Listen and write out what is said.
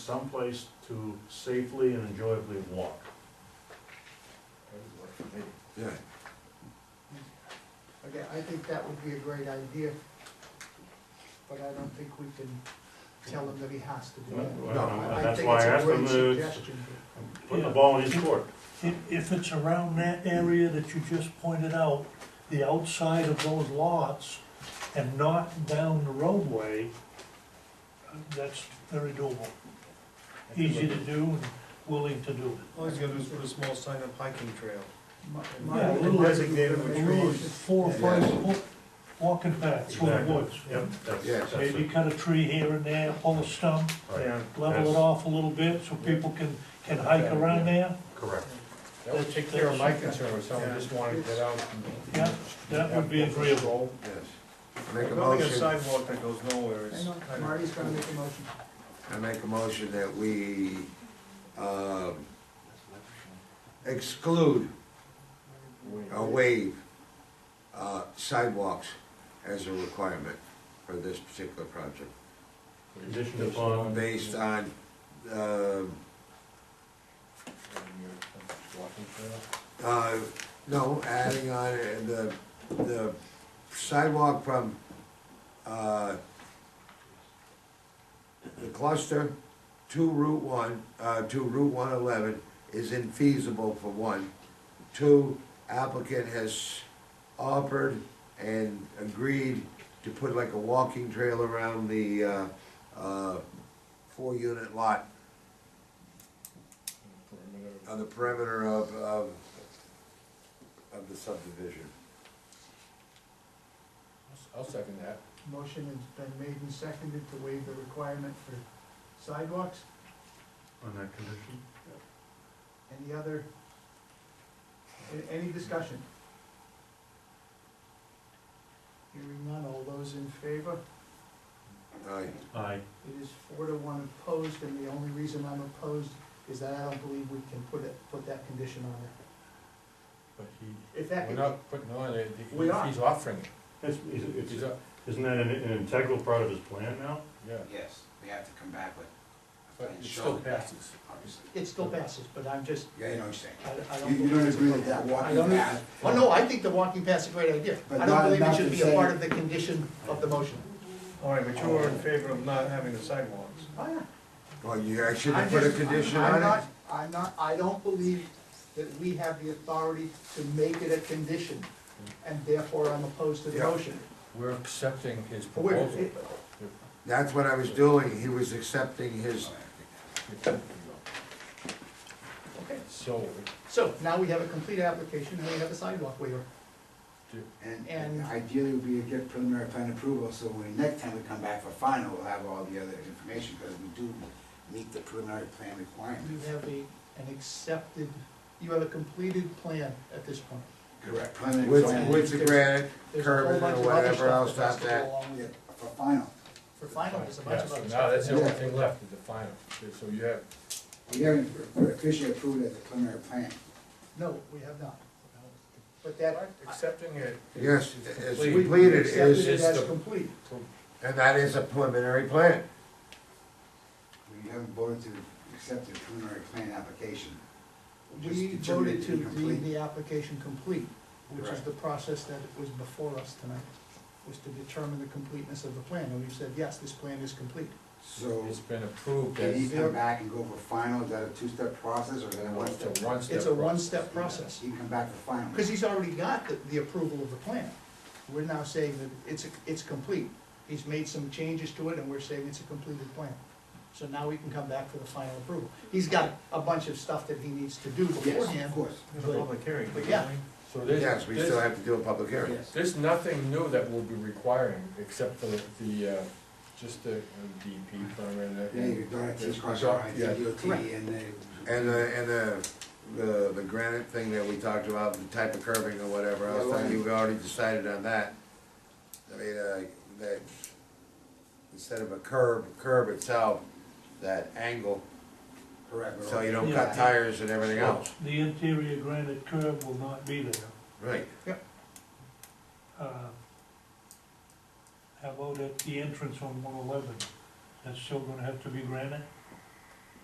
someplace to safely and enjoyably walk. Yeah, Okay, I think that would be a great idea, but I don't think we can tell him that he has to do that. Well, I- I That's think why I it's a asked him great to suggestion. put the ball in his court. If, if it's around that area that you just pointed out, the outside of those lots, and not down the roadway, uh, that's very doable. Easy to do and willing to do All he's gonna do is put a small sign up hiking trail. My- Yeah, a my- little- Designated with it. Maybe A we little should- Four, or five foot walking paths through the Exactly. woods. Yep, that's, Yeah. that's Maybe it. cut a tree here and there, pull a stump, Right, level That's- it off a little bit so people can, can hike around there. correct. That would take care of my concern, if someone just wanted to get out. and- Yeah, that would be agreeable. yes. But Make a Building a motion, sidewalk that goes nowhere is Hang on, kind of, Marty's gonna make a motion. I make a motion that we, um, exclude Oh, Oh, or waive, uh, sidewalks as a requirement for this particular project, Conditioned upon, based on, um, Uh, no, adding on uh, the, the sidewalk from, uh, the cluster to Route one, uh, to Route one eleven is infeasible for one. Two, applicant has offered and agreed to put like a walking trail around the, uh, uh, four-unit lot on the perimeter of, of, of the subdivision. I'll second that. Motion has been made and seconded to waive the requirement for sidewalks. on that condition. Any other, a- any discussion? Hearing none, all those in favor? Aye. Aye. It is four to one opposed, and the only reason I'm opposed is that I don't believe we can put it, put that condition on it. But he, If that, we're could- not putting on it, he- We are. he's offering it. It's, it's, He's it's- up, isn't that an, an integral part of his plan now? yeah, Yes, we have to come back with, but it still passes. obviously. it still passes, but I'm just, Yeah, you know what I'm saying. I, I don't. You, you believe don't it's a agree good with that idea. I walking don't- path? Oh, no, I think the walking path's a great idea. But I not don't believe it enough should to be a say- part of the condition of the motion. All right, but you were in favor of not having the sidewalks. Oh, yeah. Well, you actually I'm put a just- condition I'm on it? not- I'm not, I don't believe that we have the authority to make it a condition, and therefore I'm opposed to the Yeah. motion. We're accepting his We're- proposal. it- That's what I was doing, he was accepting his, Okay, So, so now we have a complete application, and we have a sidewalk waiver. And- And- And ideally, would be to get preliminary plan approval, so when next time we come back for final, we'll have all the other information, because we do meet the preliminary plan You requirements. have a, an accepted, you have a completed plan at this point. Correct. Preliminary with, plan, with the granite There's a whole curbing bunch or of other whatever stuff else, that has not to go that. along with yeah, it. for final. For final, there's a bunch yeah, of so other now stuff. that's the only thing left, is the final. So you have, We haven't officially approved as a preliminary plan. No, we have not. But that, accepting it. is- Yes, is it's complete. we we Completed accepted is- it is as the- complete. And that is a preliminary plan. We haven't voted to accept the preliminary plan application. Just We determined voted it to deem incomplete. the application complete, which is Correct. the process that was before us tonight, was to determine the completeness of the plan, and we've said, yes, this plan is complete. So, It's been approved can you as, come back and go for final, is that a two-step process, or is that a it's one-step? a one-step. It's a process. one-step process, You can come back for final. because he's already got the, the approval of the plan. We're now saying that it's, it's complete. He's made some changes to it, and we're saying it's a completed plan. So now we can come back for the final approval. He's got a bunch of stuff that he needs to do Yes, beforehand. of course. There's a public hearing. But yeah. So there's, Yes, we still there's- have to do a public hearing. Yes. there's nothing new that we'll be requiring, except for the, uh, just the uh, DEP permit. and- Yeah, your daughter teaches cross your Yeah. eyes, DOT, E and they. And the, and the, the, the granite thing that we talked about, the type of curving or whatever Yeah, else, I right. think we already decided on that. I mean, uh, that, instead of a curb, curb itself, that angle, Correct. so you don't Yeah. cut tires and everything else. The interior granite curb will not be there. Right. Uh, How about at the entrance on one eleven? That's still gonna have to be granite?